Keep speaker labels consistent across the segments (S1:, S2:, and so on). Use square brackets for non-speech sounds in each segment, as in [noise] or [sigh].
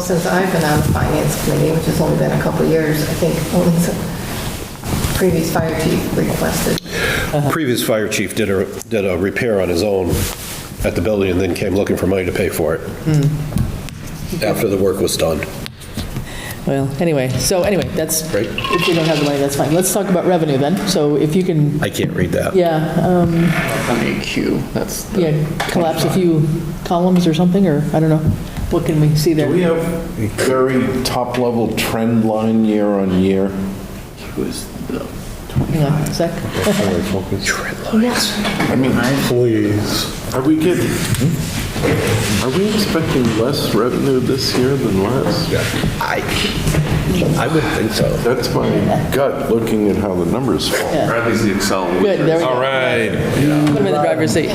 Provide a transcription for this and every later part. S1: Since I've been on the finance committee, which has only been a couple of years, I think only the previous fire chief requested.
S2: Previous fire chief did a, did a repair on his own at the building and then came looking for money to pay for it
S3: Hmm.
S2: after the work was done.
S3: Well, anyway, so anyway, that's,
S2: Right.
S3: if you don't have the money, that's fine. Let's talk about revenue then. So if you can,
S2: I can't read that.
S3: yeah, um,
S4: MEQ, that's the...
S3: yeah, collapse a few columns or something, or, I don't know, what can we see
S5: Do we
S3: there?
S5: have a very top-level trend line year on year?
S3: Hang on a sec.
S5: I mean,
S6: Please.
S5: are we getting, are we expecting less revenue this year than last?
S2: I, I would think so.
S5: That's my gut, looking at how the numbers fall.
S6: Or at least the Excel.
S3: Good, there we go.
S6: right.
S3: Put them in the driver's seat.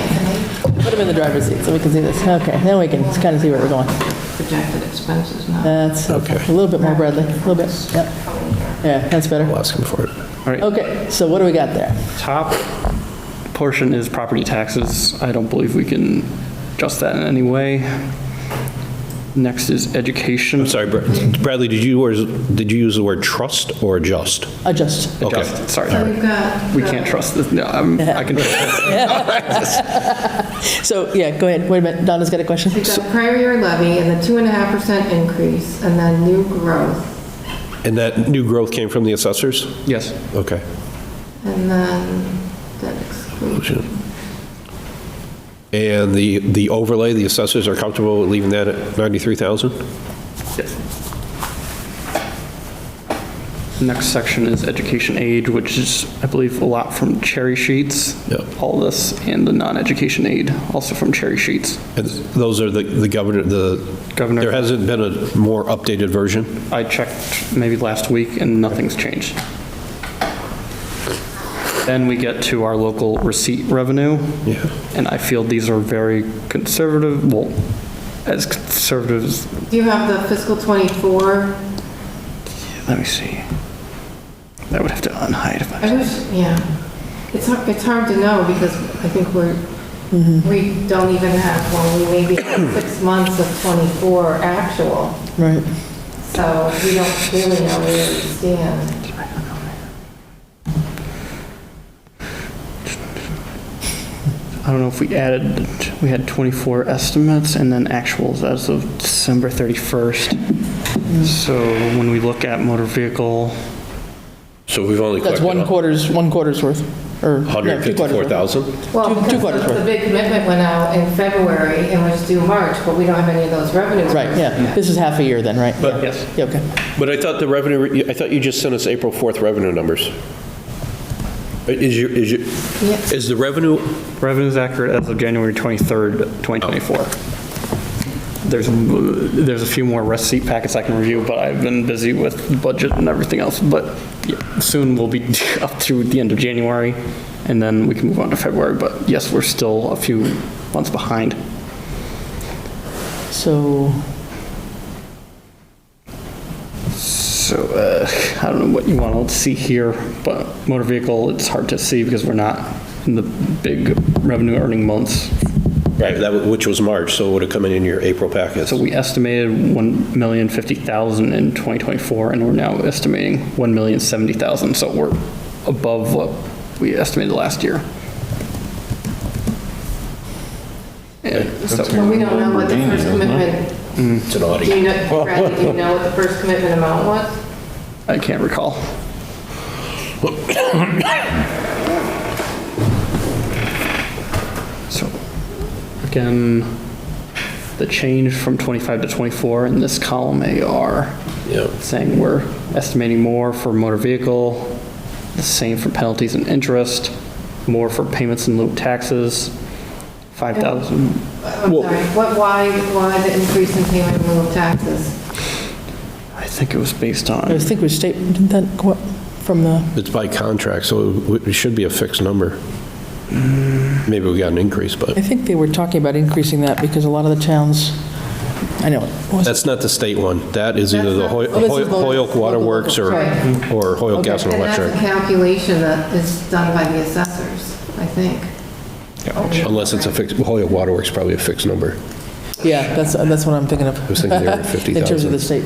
S3: Put them in the driver's seat so we can see this. Okay, now we can kind of see where we're going.
S1: Projected expenses, not.
S3: That's a little bit more Bradley, a little bit, yep. Yeah, that's better.
S2: I'll ask him for it.
S3: Okay, so what do we got there?
S4: Top portion is property taxes. I don't believe we can adjust that in any way. Next is education.
S2: I'm sorry, Brad- Bradley, did you, use- did you use the word trust or adjust?
S3: Adjust.
S2: Okay.
S4: Adjust, sorry.
S1: So we've got.
S4: We can't trust this, no, I'm- I
S2: [laughs]
S4: can trust
S3: So, yeah, go ahead, wait a minute, Donna's got a question?
S1: We've got prior year levy and the two and a half percent increase, and then new growth,
S2: And that new growth came from the assessors?
S4: Yes.
S2: Okay.
S1: and then debt exclusion.
S2: And the, the overlay, the assessors are comfortable with leaving that at 93,000?
S4: Yes. Next section is education aid, which is, I believe, a lot from cherry sheets.
S2: Yep.
S4: All this and the non-education aid, also from cherry sheets.
S2: And those are the, the governor, the.
S4: Governor.
S2: There hasn't been a more updated version?
S4: I checked maybe last week and nothing's changed. Then we get to our local receipt revenue.
S2: Yeah.
S4: And I feel these are very conservative, well, as conservative as
S1: Do you have the fiscal '24?
S4: let me see. I would have to unhide if I,
S1: I wish, yeah. It's, har- it's hard to know because I think we're, we don't even have, well, we maybe have six months of 24 actual.
S3: Right.
S1: So we don't really know where we stand.
S4: I don't know if we added, we had 24 estimates and then actuals as of December 31st. So when we look at motor vehicle,
S2: So we've only
S3: That's
S2: collected
S3: one quarter's, one quarter's worth, or, no, two quarters worth.
S2: 154,000?
S1: Well,
S3: Two- two
S1: because
S3: quarters
S1: the-
S3: worth.
S1: the big commitment went out in February and was due March, but we don't have any of those revenues.
S3: Right, yeah, this is half a year then, right?
S2: But-
S3: Yeah.
S4: Yes.
S3: Yeah, okay.
S2: But I thought the revenue, I thought you just sent us April 4th revenue numbers. Uh, Is your, is your,
S1: Yes.
S2: is the revenue,
S4: Revenue is accurate as of January 23rd, 2024. There's, there's a few more receipt packets I can review, but I've been busy with budget and everything else, but yeah, soon we'll be [laughs] up to the end of January, and then we can move on to February, but yes, we're still a few months behind.
S3: So,
S4: So, uh, I don't know what you want to see here, but motor vehicle, it's hard to see because we're not in the big revenue earning months
S2: right, that, wa- which was March, so it would have come in in your April packet.
S4: So we estimated 1,050,000 in 2024, and we're now estimating 1,070,000, so we're above what we estimated last year. And so,
S1: But we don't know what the first commitment,
S2: It's
S1: do
S2: an
S1: you
S2: audit.
S1: know, Bradley, do you know what the first commitment amount was?
S4: I can't recall. So, again, the change from 25 to 24 in this column AR,
S2: Yep.
S4: saying we're estimating more for motor vehicle, the same for penalties and interest, more for payments and lieu of taxes, 5,000.
S1: I'm sorry, what, why, why the increase in payment in lieu of taxes?
S4: I think it was based on.
S3: I think we state, didn't that go up from the,
S2: It's by contract, so it w- it should be a fixed number.
S1: Mm.
S2: Maybe we got an increase,
S3: I
S2: but
S3: think they were talking about increasing that because a lot of the towns, I know, was
S2: that's not the state one. That is either the Hoy-
S3: Oh, this is
S2: Hoy-
S3: local-
S2: Hoyok Water
S3: local,
S2: Works or,
S1: right.
S2: or Hoyok Gas and
S1: And that's a
S2: Electric,
S1: calculation that is done by the assessors, I think.
S2: unless it's a fixed, Hoyok Water Works probably a fixed number.
S3: Yeah, that's, that's what I'm thinking of.
S2: was thinking they were at
S3: [laughs] In terms
S2: 50,000.
S3: of the state